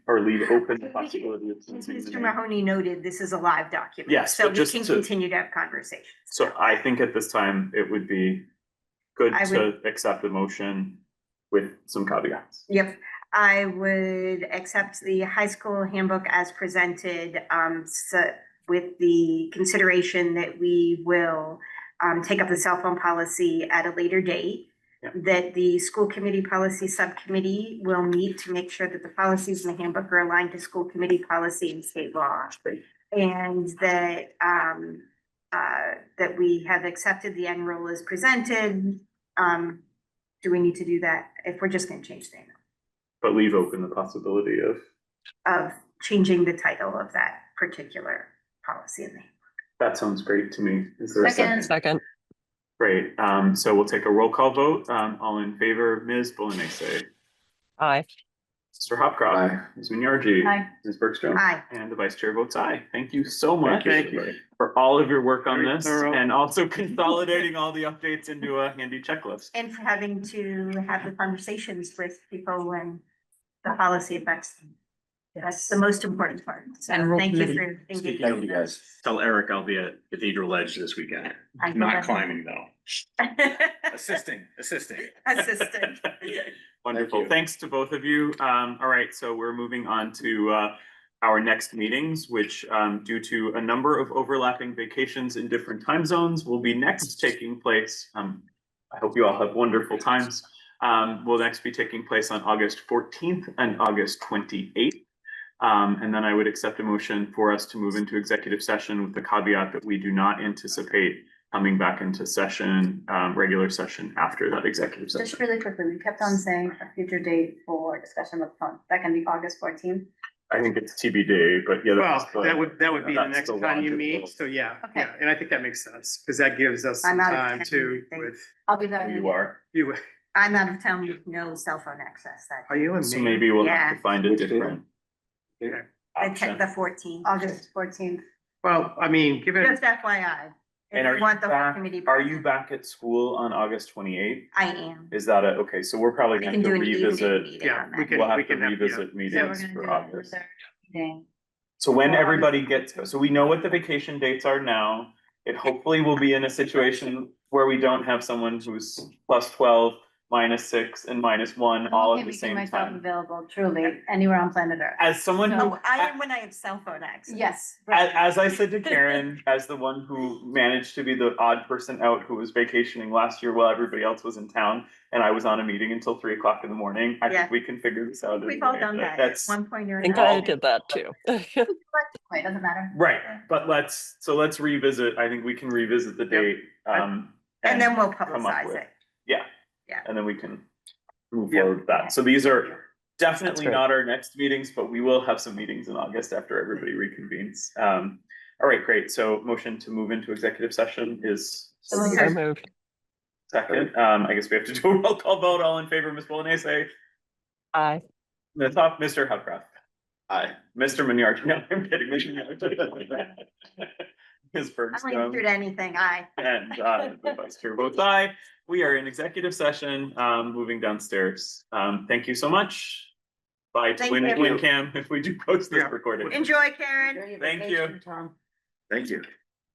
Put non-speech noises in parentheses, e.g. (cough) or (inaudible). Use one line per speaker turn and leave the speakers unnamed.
or leave open the
We can-
possibility of.
As
something
Mr.
remaining.
Mahoney noted, this is a live document.
Mm-hmm. Yes,
So
but
we
just
can
to-
continue to have conversations.
So I think at this time, it would be good
I
to accept the motion with some caveats.
Yep, I would accept the high school handbook as presented, um, so with the consideration that we will um, take up the cell phone policy at a later date.
Yep.
That the school committee policy subcommittee will meet to make sure that the policies in the handbook are aligned to school committee policy and state law.
Great.
And that, um, uh, that we have accepted the end rule as presented. Um, do we need to do that if we're just gonna change the name
But leave open the possibility of,
of changing the title of that particular policy in the
that sounds great to me. Is there a second?
Second,
Great, um, so we'll take a roll call vote, um, all in favor, Ms. Bolanese, say,
aye.
Mr. Hopcroft, Ms. Minyarji.
Aye.
Ms. Bergstrom.
Aye.
And the vice chair votes aye. Thank you so much
Thank you.
for all of your work on
Very
this
thorough.
and also (laughs) consolidating all the updates into a handy
(laughs)
checklist.
And for having to have the conversations with people when the policy affects them. That's the most important part. So
And rule
thank you
committee.
for thinking.
Speaking of you guys, tell Eric I'll be at Cathedral Edge this weekend.
I
Not
love it. (laughs)
climbing though. Assisting, assisting. (laughs)
Assistant.
Wonderful.
Thank you.
Thanks to both of you. Um, all right, so we're moving on to uh our next meetings, which um due to a number of overlapping vacations in different time zones will be next taking place. Um, I hope you all have wonderful times. Um, will next be taking place on August fourteenth and August twenty-eighth. Um, and then I would accept a motion for us to move into executive session with the caveat that we do not anticipate coming back into session, um, regular session after that executive session.
Just really quickly, we kept on saying a future date for discussion with phone. That can be August fourteenth.
I think it's TBD, but yeah.
Well,
that's the-
that would, that would be the
That's
next
the
time you
logical-
meet, so yeah,
Okay.
yeah, and I think that makes sense, because that gives us some
I'm out of
time
town,
to
I think.
with
I'll be there.
are.
you.
I'm out of town with no cell phone access that,
Are you and
So
me?
maybe we'll have to
Yeah.
find a
Which data?
different.
Yeah.
the te-
option.
the fourteen.
August fourteenth.
Well, I mean, given.
Just FYI. if
And
you
are you
want the
back-
committee
Are you
present,
back at school on August twenty eighth?
I am.
Is that a, okay, so we're probably
We
gonna
can
have to
do an evening
revisit,
meeting
Yeah,
on
we
that.
can-
we'll have to
have- yeah.
revisit
So we're
meetings
gonna do
for
that for
August.
their meeting.
So when
Or-
everybody gets, so we know what the vacation dates are now. It hopefully will be in a situation where we don't have someone who's plus twelve, minus six and minus one
I'm
all
okay
at the
making
same
myself
time.
Available truly anywhere on planet Earth.
As someone who
Oh, I am when I have cell phone access.
Yes.
As,
right.
as I said to
(laughs)
Karen, as the one who managed to be the odd person out who was vacationing last year while everybody else was in town, and I was on a meeting until three o'clock in the morning, I
Yeah.
think we can figure this out.
We've all
anyway.
done that at
That's,
one point or
I think
another.
I did that too. (laughs)
Wait, doesn't matter.
right, but let's, so let's revisit, I think we can revisit the date, um.
And then we'll
come up
publicize
with.
it.
And then we can move
Yeah.
forward with that. So these are definitely
great.
not our next meetings, but we will have some meetings in August after everybody reconvenes. Um, all right, great. So motion to move into executive session is
So
So moved.
Second, um, I guess we have to (laughs) do a roll call vote. All in favor, Ms. Bolanese,
Aye.
the top, Mr. Hubcraft. Aye. Mr. Minyard, (laughs) no, I'm kidding. Mr. (laughs) Minyard. Ms.
I don't
Bergstrom
do anything, I.
and, uh, the vice chair votes aye. We are in executive session, um, moving downstairs. Um, thank you so much. Bye to
Thank
Win,
you.
Wincam if we do post this
Yeah.
recording.
Enjoy, Karen.
Thank you.
Thank you.